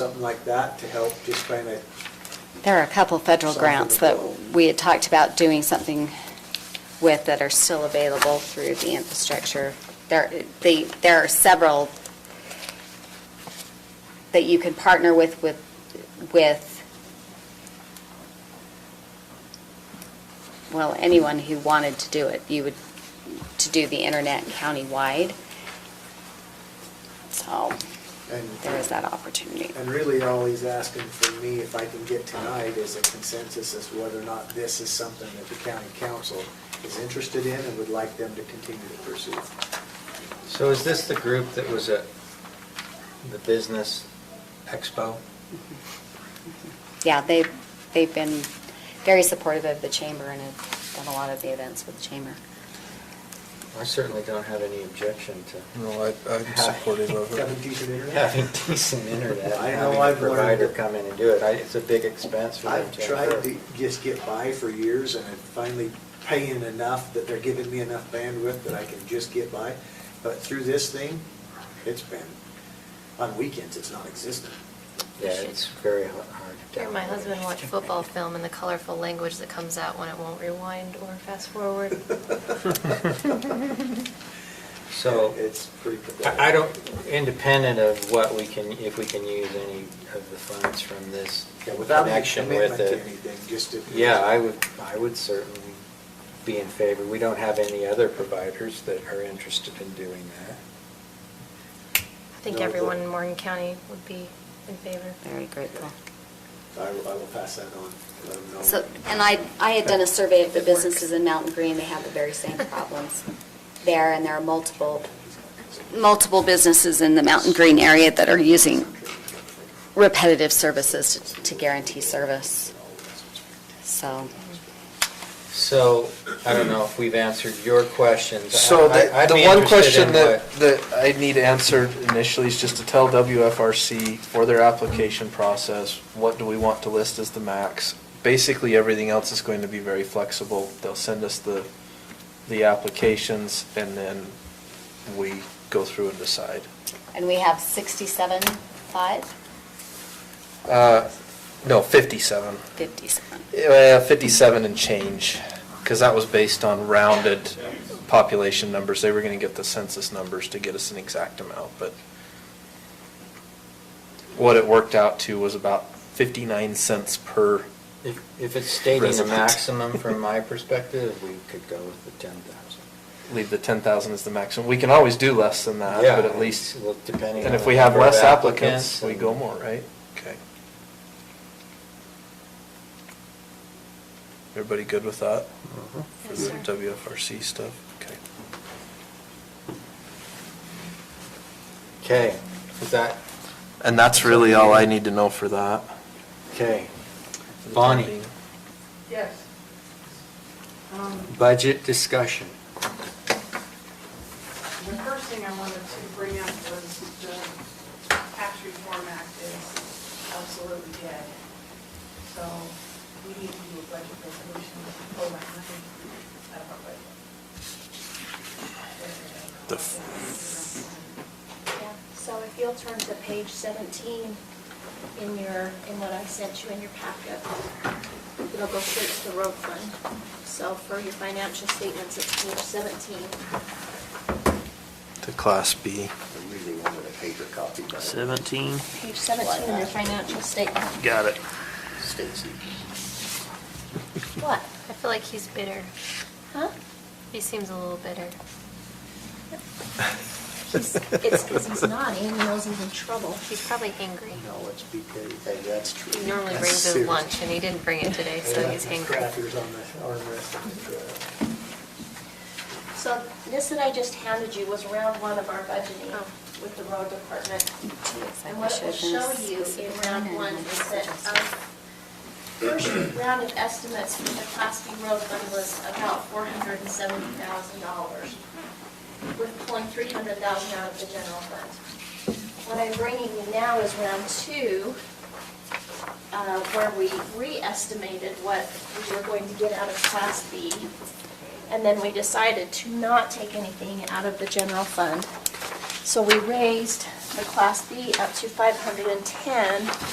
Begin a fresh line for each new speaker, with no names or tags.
something like that to help just kind of,
There are a couple federal
Something
grants that
about-
we had talked about doing something with that are still available through the infrastructure. There, the, there are several that you can partner with, with, with, well, anyone who wanted to do it. You would, to do the internet countywide. So there is
and,
that opportunity.
and really all he's asking for me, if I can get tonight, is a consensus as to whether or not this is something that the county council is interested in and would like them to continue to pursue.
So is this the group that was at the business expo?
Yeah, they, they've been very supportive of the chamber and have done a lot of the events with the chamber.
I certainly don't have any objection to
No, I, I'm supportive of
Kevin,
it.
decent internet?
having decent internet,
I
and
know
having a
I've learned
provider
that-
come in and do it. I- It's a big expense for them
I've
to
tried
incur.
to just get by for years and I'm finally paying enough that they're giving me enough bandwidth that I can just get by. But through this thing, it's been, on weekends, it's non-existent.
Yeah, it's very h- hard. to
Here, my
download.
husband watched football film and the colorful language that comes out when it won't rewind or fast forward.
So
It's pretty pathetic.
I I don't, independent of what we can, if we can use any of the funds from this
Yeah, without any
connection with
commitment
it.
to anything, just if.
Yeah, I would, I would certainly be in favor. We don't have any other providers that are interested in doing that.
I think
No, but-
everyone in Morgan County would be in favor.
Very grateful.
I will, I will pass that on, let 'em know.
So, and I, I had done a survey of the businesses in Mountain Green, they have the very same problems there, and there are multiple, multiple businesses in the Mountain Green area that are using repetitive services to- to guarantee service, so.
So, I don't know if we've answered your questions. I-
So the,
I'd
the
be
one
interested
question
in
that,
what-
that I need answered initially is just to tell WFRC for their application process, what do we want to list as the max? Basically, everything else is going to be very flexible. They'll send us the, the applications and then we go through and decide.
And we have sixty-seven, five,
Uh, no, fifty-seven.
fifty-seven.
Uh, 57 and change, because that was based on rounded population numbers. They were going to get the census numbers to get us an exact amount, but what it worked out to was about 59 cents per,
If if it's stating the
Resident.
maximum from my perspective, we could go with the ten thousand.
leave the 10,000 as the maximum. We can always do less than that,
Yeah,
but at least,
well, depending
and
on
if
the
we have
number of
less applicants,
applicants
we
and-
go more, right? Okay. Everybody good with that? For
Yes,
the
sir.
WFRC stuff? Okay.
Okay, is that,
And that's really all I need to know for that.
okay. Bonnie,
Yes. Um,
budget discussion.
The first thing I wanted to bring up was the tax reform act is absolutely dead. So we need to do a budget resolution to pull that money out of our budget.
The
Yeah, so if you'll turn to page 17 in your, in what I sent you in your packet, it'll go straight to the road fund. So for your financial statements, it's page 17.
To Class B.
I really wanted a paper copy. but-
17,
Page 17 in your financial statement.
got it.
Stacy. What?
I feel like he's bitter.
Huh?
He seems a little bitter.
He's- It's because he's naughty and he knows he's in trouble.
He's probably angry.
No, it's because, hey, that's true.
He normally
That's
brings his
serious.
lunch and he didn't bring it today, so
Yeah,
he's angry.
Crackers on the armrest of the uh, truck.
So this that I just handed you was round one of our budgeting
Oh.
with the road department.
I
And what it will
wish I
show
had been
you in
specific on
round
it.
one is that of, first round of estimates for the Class B road fund was about four hundred and seventy thousand dollars. We're pulling three hundred thousand out of the general fund. What I'm bringing you now is round two, uh, where we re-estimated what we were going to get out of Class B. And then we decided to not take anything out of the general fund So we raised the Class B up to 510